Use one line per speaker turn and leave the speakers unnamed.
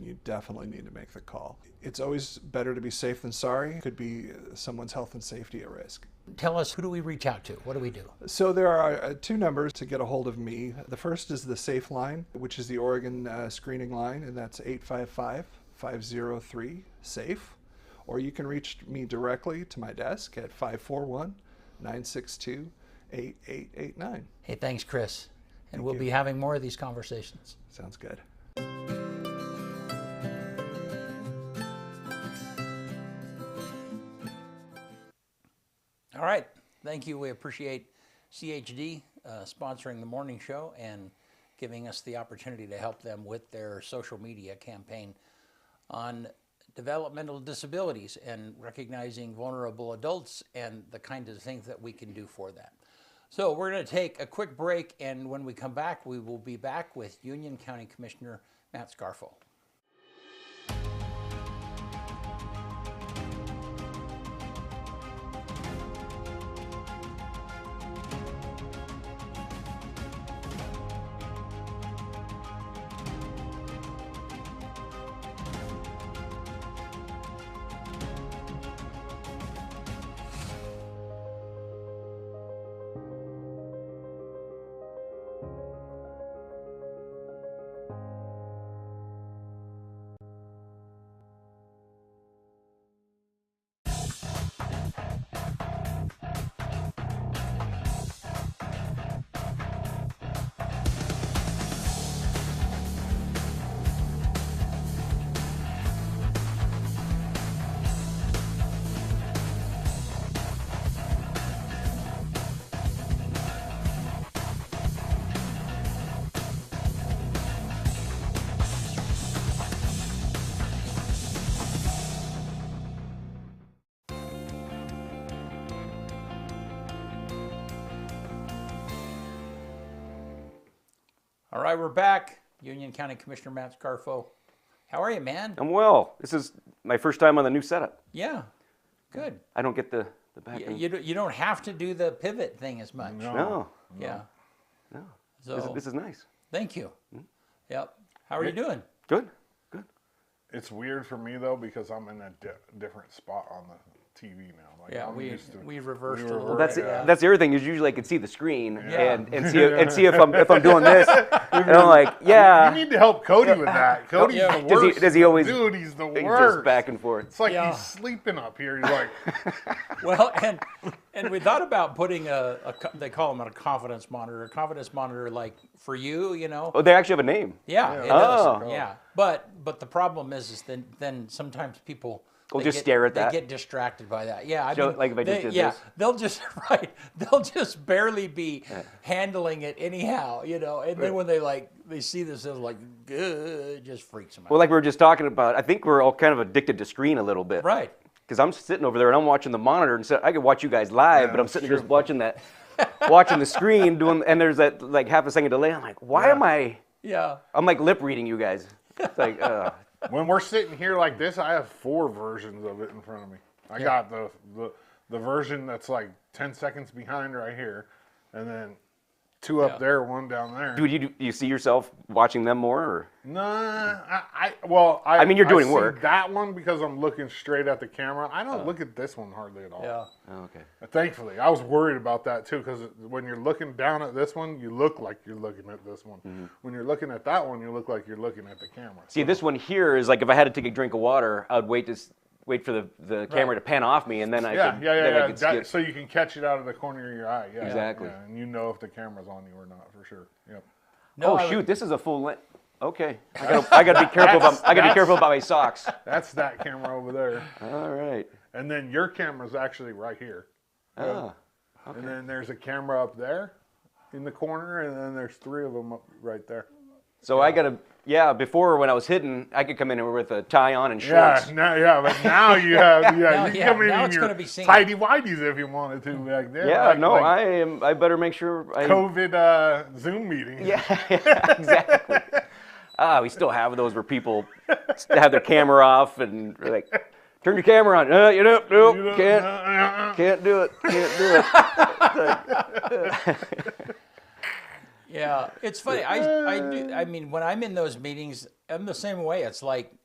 you definitely need to make the call. It's always better to be safe than sorry. Could be uh, someone's health and safety at risk.
Tell us who do we reach out to? What do we do?
So there are uh, two numbers to get a hold of me. The first is the Safe Line, which is the Oregon uh, screening line, and that's 855 503 SAFE. E. Or you can reach me directly to my desk at 541 962 8889.
Hey, thanks, Chris. And we'll be having more of these conversations.
Sounds good.
All right. Thank you. We appreciate CHD uh, sponsoring the morning show and giving us the opportunity to help them with their social media campaign on developmental disabilities and recognizing vulnerable adults and the kind of things that we can do for that. So we're going to take a quick break, and when we come back, we will be back with Union County Commissioner Matt Scarfo. All right, we're back. Union County Commissioner Matt Scarfo. How are you, man?
I'm well. This is my first time on the new setup.
Yeah, good.
I don't get the, the back
Y-
end.
You, don't- you don't have to do the pivot thing as much.
no,
Yeah.
no.
So
This, is- Hmm? this is nice.
thank you. Yep. How are you doing?
Good, good.
It's weird for me though because I'm in a di- different spot on the TV now. Like,
Yeah,
I'm
we-
used to-
we reversed a
reversed
little
That's
bit. Yeah.
that's the other thing is usually I can see the screen
Yeah.
and, and see and see if I'm if I'm doing this and I'm like yeah
You need to help Cody with that. Cody's
Yeah.
the
Does
worst.
he- does he always
Dude, he's the
It
worst.
just back and forth
It's like
Yeah.
he's sleeping up here. He's like,
Well, and and we thought about putting a, a co- they call them a confidence monitor, a confidence monitor like for you, you know.
oh they actually have a name
Yeah, it
Oh.
does. Yeah, but but the problem is, is then then sometimes people
Will
they
just stare at that.
They get distracted by that. Yeah, I
So,
mean,
like if I just
they-
did
yeah,
this?
they'll just right, they'll just barely be handling it anyhow, you know. And then when they like they see this, they're like, good, it just freaks them out.
well like we were just talking about I think we're all kind of addicted to screen a little bit
right.
because I'm sitting over there and I'm watching the monitor and so I could watch you guys live but I'm
that's
sitting there just watching that watching the screen doing and there's that like half a second delay I'm like why am I
Yeah.
I'm like lip reading you guys it's like uh,
when we're sitting here like this, I have four versions of it in front of me. I got the, the the version that's like ten seconds behind right here, and then two up
Yeah.
there, one down there.
dude you you see yourself watching them more or
Nah, I, I well, I,
I mean, you're doing
see
work.
That one because I'm looking straight at the camera. I don't look at this one hardly at all. Uh,
Yeah.
oh, okay
Thankfully, I was worried about that too because when you're looking down at this one, you look like you're looking at this one. When you're looking at that one, you look like you're looking at the camera.
Mm-hmm. See, this one here is like if I had to take a drink of water, I would wait to s- wait for the, the camera to pan off me, and then I
yeah,
could,
yeah, yeah,
then
yeah.
I could
that-
skip.
so you can catch it out of the corner of your eye. Yeah,
Exactly.
yeah, and you know if the camera's on you or not for sure. Yep.
No,
oh
I would-
shoot, this is a full length. Okay, I gotta, I gotta be careful about I gotta be careful about my socks.
That's that camera over there,
All right.
and then your camera's actually right here, Oh,
Ah,
and then there's a camera up there, in the corner, and then there's three of them up right there.
so I gotta yeah. Before when I was hidden, I could come in with a tie on and
Yeah,
shorts.
now, yeah, but now you have yeah,
Now-
you
yeah,
can come in
now
in
it's
your
gonna be seen.
tidy whities if you wanted to back there.
Yeah,
like-
no,
like
I am. I better make sure. I,
COVID uh, Zoom meeting.
Yeah, exactly. Ah, we still have those where people s- have their camera off and they're like, turn your camera on. Uh, you know, nope,
You know,
can't.
uh, uh, uh.
Can't do it. Can't do it.
Yeah, it's funny. I I do. I mean, when I'm in those meetings, I'm the same way. It's like